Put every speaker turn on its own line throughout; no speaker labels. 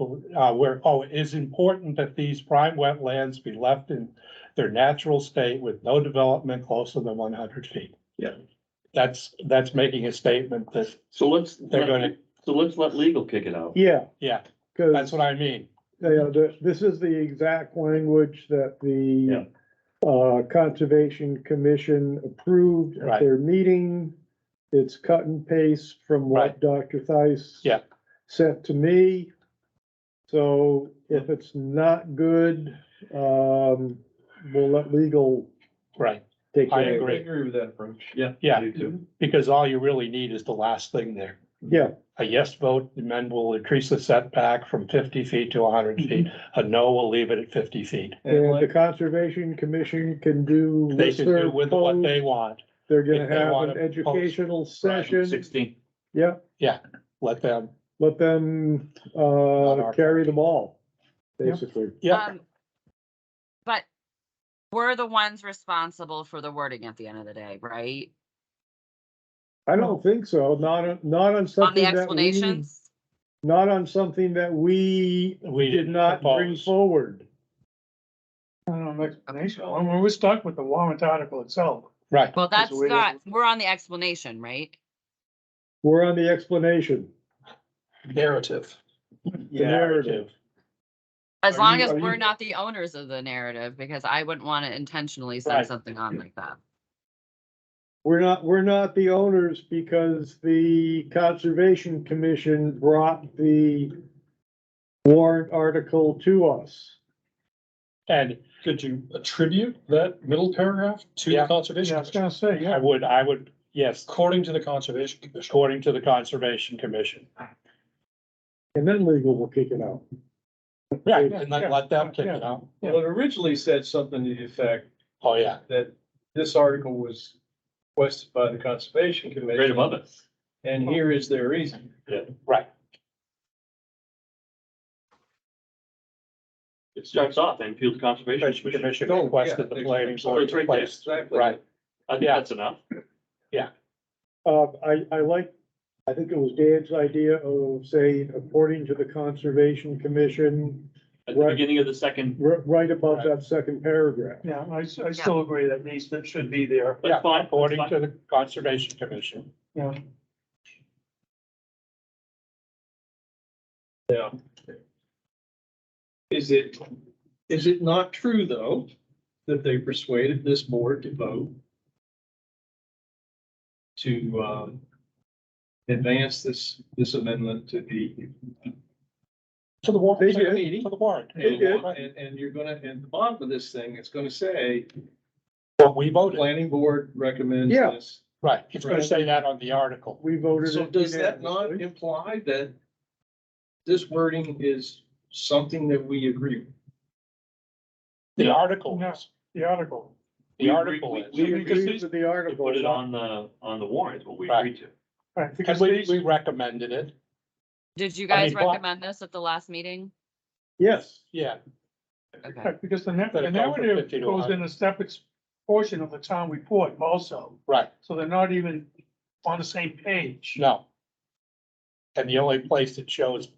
uh, where, oh, it is important that these prime wetlands be left in their natural state with no development closer than one hundred feet.
Yeah.
That's, that's making a statement that
So let's,
They're gonna-
so let's let legal kick it out.
Yeah,
Yeah, that's
cause,
what I mean.
you know, the- this is the exact language that
Yeah.
the uh, Conservation Commission approved
Right.
at their meeting. It's cut and paste from what Dr. Thies
Yeah.
sent to me. So if it's not good, um, we'll let legal
Right,
take
I
care of it.
agree.
with that approach.
Yeah.
Yeah.
You too.
because all you really need is the last thing there.
Yeah,
A yes vote, the men will increase the setback from fifty feet to hundred feet.
Mm-hmm.
A no will leave it at fifty feet.
And
and the
like,
Conservation Commission can do
They
with
should do
their
with what
code.
they want.
They're
if
gonna
they
have
wanna
an
post-
educational
Right,
session.
Sixteen.
Yeah,
Let them,
let them,
Not
uh,
our-
carry the ball,
Yeah.
basically.
yeah,
Um, But we're the ones responsible for the wording at the end of the day, right?
I don't think so, not, not on
On the
something that we,
explanations?
not on something that we
we
did not bring
propose.
forward.
I don't know, explanation, I mean, we're stuck with the warrant article itself.
Right,
Well, that's
we-
not, we're on the explanation, right?
We're on the explanation,
narrative.
the narrative.
As
Are
long
you-
as
are
we're
you-
not the owners of the narrative, because I wouldn't want to intentionally
Right.
send something on like that.
We're not, we're not the owners because the Conservation Commission brought the warrant article to us.
And
Could you attribute that middle paragraph to the
Yeah.
Yeah, I
conservation?
was
Commission?
gonna say,
I
yeah,
would, I would, yes,
According to the conservation commission,
according to the Conservation Commission.
And then legal will kick it out.
Yeah, and then let them kick it out.
Well, it originally said something to the effect
Oh, yeah,
that this article was requested by the Conservation
Right
Commission,
above it.
and here is their reason.
right.
It starts off and appeal to
Conservation
conservation. Commission.
Commission
Oh, yeah,
requested the planning
So
board
it's
to
right there.
place,
Exactly.
right,
I think
Yeah.
that's enough.
Uh, I, I like, I think it was Dan's idea of saying, according to the Conservation Commission,
At the
Right.
beginning of the second,
ri- right above that second paragraph.
yeah, I, s- I still agree that needs, that should be there,
yeah,
that's fine. that's
according
fine.
to the Conservation Commission.
yeah.
Yeah. Is it, is it not true, though, that they persuaded this board to vote to, um, advance this, this amendment to the
To the warrant,
They
to
did.
the warrant.
And,
did.
and, and you're gonna, and the bottom of this thing, it's gonna say,
What we voted,
planning board recommends
Yeah.
this.
right, it's gonna say that on the article.
We voted.
So
it
does that not
unanimously.
imply that this wording is something that we agree? with?
The article
Yeah.
is,
The article,
the article is,
We
We
agreed
agreed with the
to
article.
put it on the, on the warrant, what we
Right.
agreed to.
right,
because
because
we,
these,
we recommended it,
Did you
I
guys
mean, but-
recommend this at the last meeting?
Yes,
yeah,
Okay,
right, because the na-
That
the
it goes from
narrative
50 to
goes
100.
in a separate portion of the town report also,
right,
so they're not even on the same page.
no. And the only place it shows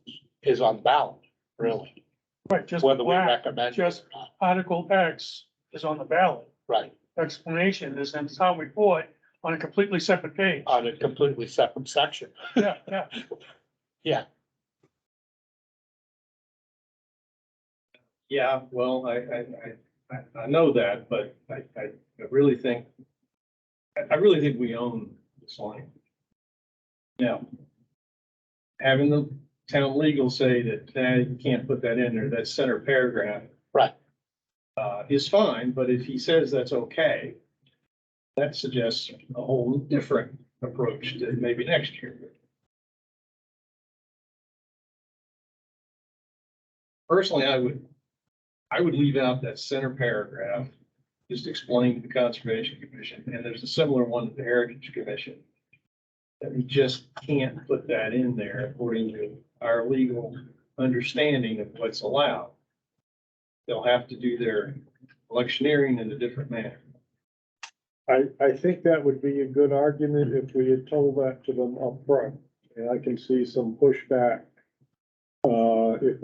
is on ballot, really,
Right, just
whether we
black,
recommend it or
just-
not,
Article X is on the ballot,
right,
explanation is in the town report on a completely separate page.
Uh,
on a completely separate section.
Yeah, yeah,
Yeah, well, I, I, I- I, I know that, but I, I I really think, I, I really think we own this line. Now, having the town legal say that, nah, you can't put that in there, that center paragraph.
Right.
Uh, is fine, but if he says that's okay, that suggests a whole different approach to maybe next year. Personally, I would I would leave out that center paragraph, just explain to the Conservation Commission, and there's a similar one to the Heritage Commission. That we just can't put that in there according to our legal understanding of what's allowed. They'll have to do their electioneering in a different manner.
I, I think that would be a good argument if we had told that to them upfront. And I can see some pushback, uh, uh, if